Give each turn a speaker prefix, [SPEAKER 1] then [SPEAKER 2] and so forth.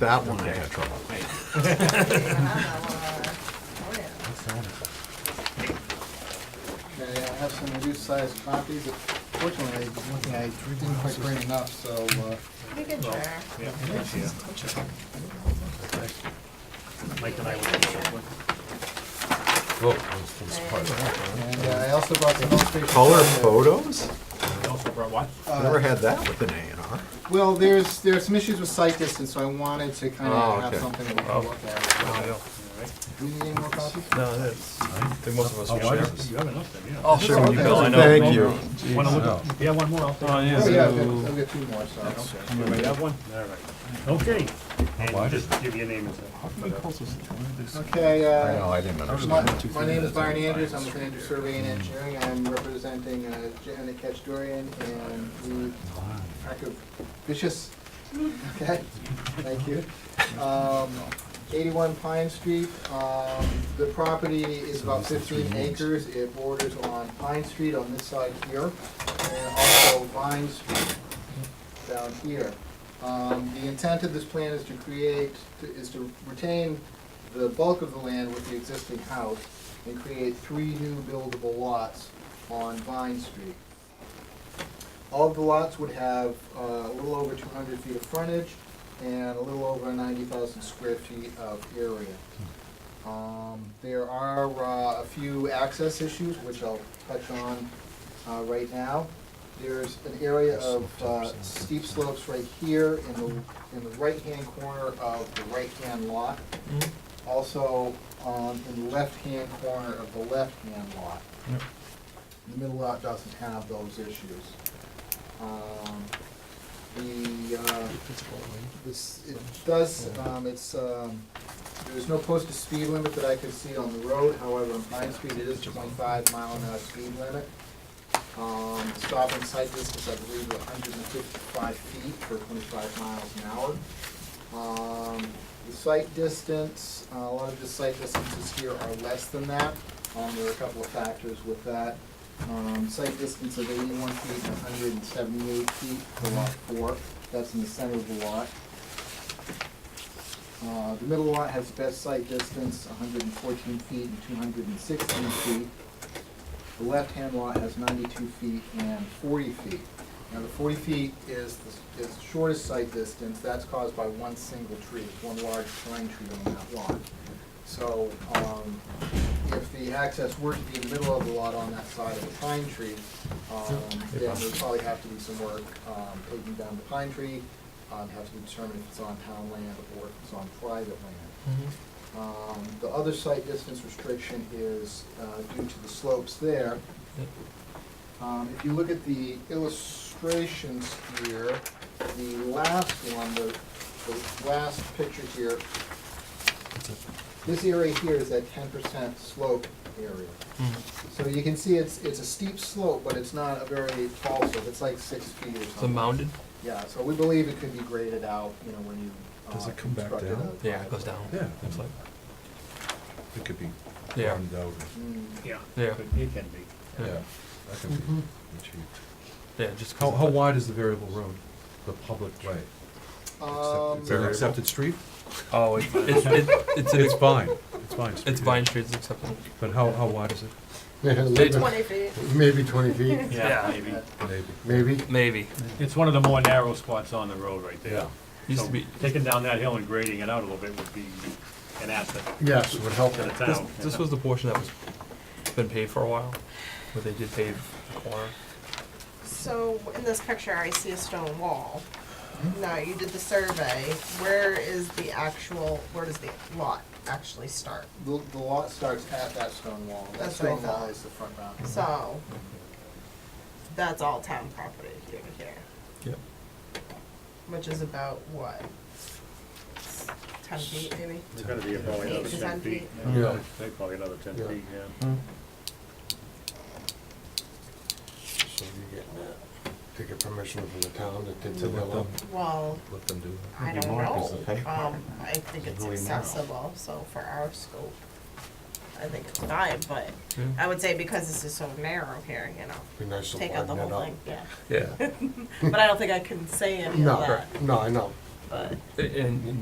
[SPEAKER 1] that one I had trouble.
[SPEAKER 2] Okay, I have some reduced-sized copies. Fortunately, one thing I didn't quite bring enough, so, uh,
[SPEAKER 3] You can share.
[SPEAKER 4] Mike and I would do something.
[SPEAKER 2] and uh, I also brought some illustrations.
[SPEAKER 1] Color
[SPEAKER 2] of the-
[SPEAKER 1] photos?
[SPEAKER 4] We Also brought what?
[SPEAKER 1] Never had that with an A and R.
[SPEAKER 2] Well, there's, there are some issues with sight distance, so I wanted to kind
[SPEAKER 1] Oh,
[SPEAKER 2] of have
[SPEAKER 1] okay.
[SPEAKER 2] something that we can look
[SPEAKER 4] Oh,
[SPEAKER 2] at. Do you need any more copies?
[SPEAKER 4] No, that's.
[SPEAKER 5] think most of us
[SPEAKER 4] Oh,
[SPEAKER 5] will
[SPEAKER 4] I
[SPEAKER 5] share.
[SPEAKER 4] just, you have enough then, yeah.
[SPEAKER 5] I'll share when you
[SPEAKER 2] okay.
[SPEAKER 5] go, I know.
[SPEAKER 1] Thank you.
[SPEAKER 4] Oh, Wanna look at- Yeah, one more, I'll take. Oh,
[SPEAKER 2] Oh, yeah, I've got- I've got two more, so.
[SPEAKER 4] Everybody have one? All right. Oh, Okay, and just give your name and stuff.
[SPEAKER 2] Okay,
[SPEAKER 1] I
[SPEAKER 2] uh,
[SPEAKER 1] know, I didn't
[SPEAKER 2] My
[SPEAKER 1] understand.
[SPEAKER 2] my name is Byron Andrews, I'm with Andrews Survey and Engineering, I'm representing uh, Janet Catchdorian and the Active Vicious. Okay, thank you. Um, 81 Pine Street, um, the property is about 15 acres, it borders on Pine Street on this side here, and also Vine Street down here. Um, The intent of this plan is to create, is to retain the bulk of the land with the existing house and create three new buildable lots on Vine Street. All of the lots would have uh, a little over two hundred feet of frontage and a little over ninety thousand square feet of area. Um, There are uh, a few access issues, which I'll touch on uh, right now. There's an area of uh, steep slopes right here in the, in the right-hand corner of the right-hand lot. Also, um, in the left-hand corner of the left-hand lot. The middle lot doesn't have those issues. Um, The, uh, this, it does, um, it's, um, there's no posted speed limit that I can see on the road, however, on Pine Street, it is twenty-five mile an hour speed limit. Um, stop and sight distance, I believe, hundred and fifty-five feet for twenty-five miles an hour. Um, the site distance, uh, a lot of the site distances here are less than that. Um, there are a couple of factors with that. Um, site distance of eighty-one feet and hundred and seventy-eight feet for lot four, that's in the center of the lot. Uh, the middle lot has best site distance, hundred and fourteen feet and two hundred and sixteen feet. The left-hand lot has ninety-two feet and forty feet. Now, the forty feet is, the- is the shortest site distance, that's caused by one single tree, one large pine tree on that lot. So, um, if the access were to be in the middle of the lot on that side of the pine tree, um, then there'd probably have to be some work, um, taking down the pine tree, um, have to determine if it's on town land or if it's on private land. Um, The other site distance restriction is uh, due to the slopes there. Um, If you look at the illustrations here, the last one, the, the last picture here, this area here is that ten percent slope area. So you can see it's, it's a steep slope, but it's not a very tall slope, it's like six feet or something.
[SPEAKER 6] The mounded?
[SPEAKER 2] Yeah, so we believe it could be graded out, you know, when you. uh,
[SPEAKER 5] Does it come back
[SPEAKER 2] construct it
[SPEAKER 5] down?
[SPEAKER 2] up.
[SPEAKER 6] Yeah, it goes down.
[SPEAKER 5] Yeah.
[SPEAKER 6] It's like,
[SPEAKER 5] It could be
[SPEAKER 6] yeah,
[SPEAKER 5] farmed out.
[SPEAKER 2] Mm.
[SPEAKER 4] Yeah.
[SPEAKER 6] Yeah.
[SPEAKER 4] But It can be.
[SPEAKER 6] Yeah.
[SPEAKER 5] Yeah, that could be achieved.
[SPEAKER 6] yeah, just. 'cause
[SPEAKER 5] How,
[SPEAKER 6] of
[SPEAKER 5] how
[SPEAKER 6] the-
[SPEAKER 5] wide is the variable road, the public way?
[SPEAKER 2] Um,
[SPEAKER 5] Is it an accepted street?
[SPEAKER 6] Oh, it's, it's, it- it's, an
[SPEAKER 5] It's
[SPEAKER 6] ex-
[SPEAKER 5] Vine, it's Vine Street.
[SPEAKER 6] it's Vine Street, it's acceptable.
[SPEAKER 5] But how, how wide is it?
[SPEAKER 3] Twenty feet.
[SPEAKER 1] Maybe twenty feet,
[SPEAKER 6] Yeah.
[SPEAKER 4] maybe.
[SPEAKER 5] Maybe.
[SPEAKER 1] maybe.
[SPEAKER 6] Maybe,
[SPEAKER 4] It's one of the more narrow spots on the road right there.
[SPEAKER 6] used
[SPEAKER 4] So
[SPEAKER 6] to be,
[SPEAKER 4] Taking down that hill and grading it out a little bit would be an asset
[SPEAKER 1] Yes, would help.
[SPEAKER 4] to the
[SPEAKER 6] this,
[SPEAKER 4] town.
[SPEAKER 6] this was the portion that was, been paved for a while, where they did pave the corner.
[SPEAKER 3] So in this picture, I see a stone wall. Now, you did the survey. Where is the actual, where does the lot actually start?
[SPEAKER 2] The, the lot starts at that stone wall. That
[SPEAKER 3] That's what I
[SPEAKER 2] stone wall
[SPEAKER 3] thought.
[SPEAKER 2] is the front boundary.
[SPEAKER 3] So that's all town property here to here,
[SPEAKER 6] Yep.
[SPEAKER 3] which is about what? Ten feet maybe?
[SPEAKER 4] It's gonna be probably
[SPEAKER 3] Eight
[SPEAKER 4] another
[SPEAKER 3] to
[SPEAKER 4] ten
[SPEAKER 3] 10 feet.
[SPEAKER 4] feet.
[SPEAKER 1] Yeah.
[SPEAKER 4] They Probably another ten
[SPEAKER 1] Yeah.
[SPEAKER 4] feet, yeah.
[SPEAKER 1] So you get, to get permission from the town to to
[SPEAKER 5] Let them,
[SPEAKER 3] Well,
[SPEAKER 5] let them do that.
[SPEAKER 3] I
[SPEAKER 1] Maybe
[SPEAKER 3] don't
[SPEAKER 1] more, 'cause
[SPEAKER 3] know.
[SPEAKER 1] the paper-
[SPEAKER 3] Um, I think
[SPEAKER 1] It's
[SPEAKER 3] it's
[SPEAKER 1] really narrow.
[SPEAKER 3] accessible, so for our scope, I think it's fine, but
[SPEAKER 6] Yeah.
[SPEAKER 3] I would say because this is so narrow here, you know,
[SPEAKER 1] Be nice to
[SPEAKER 3] take out the
[SPEAKER 1] widen that
[SPEAKER 3] whole
[SPEAKER 1] up.
[SPEAKER 3] thing, yeah.
[SPEAKER 6] Yeah,
[SPEAKER 3] But I don't think I can say any of
[SPEAKER 1] No,
[SPEAKER 3] that,
[SPEAKER 1] no, I know.
[SPEAKER 3] but.
[SPEAKER 6] and, and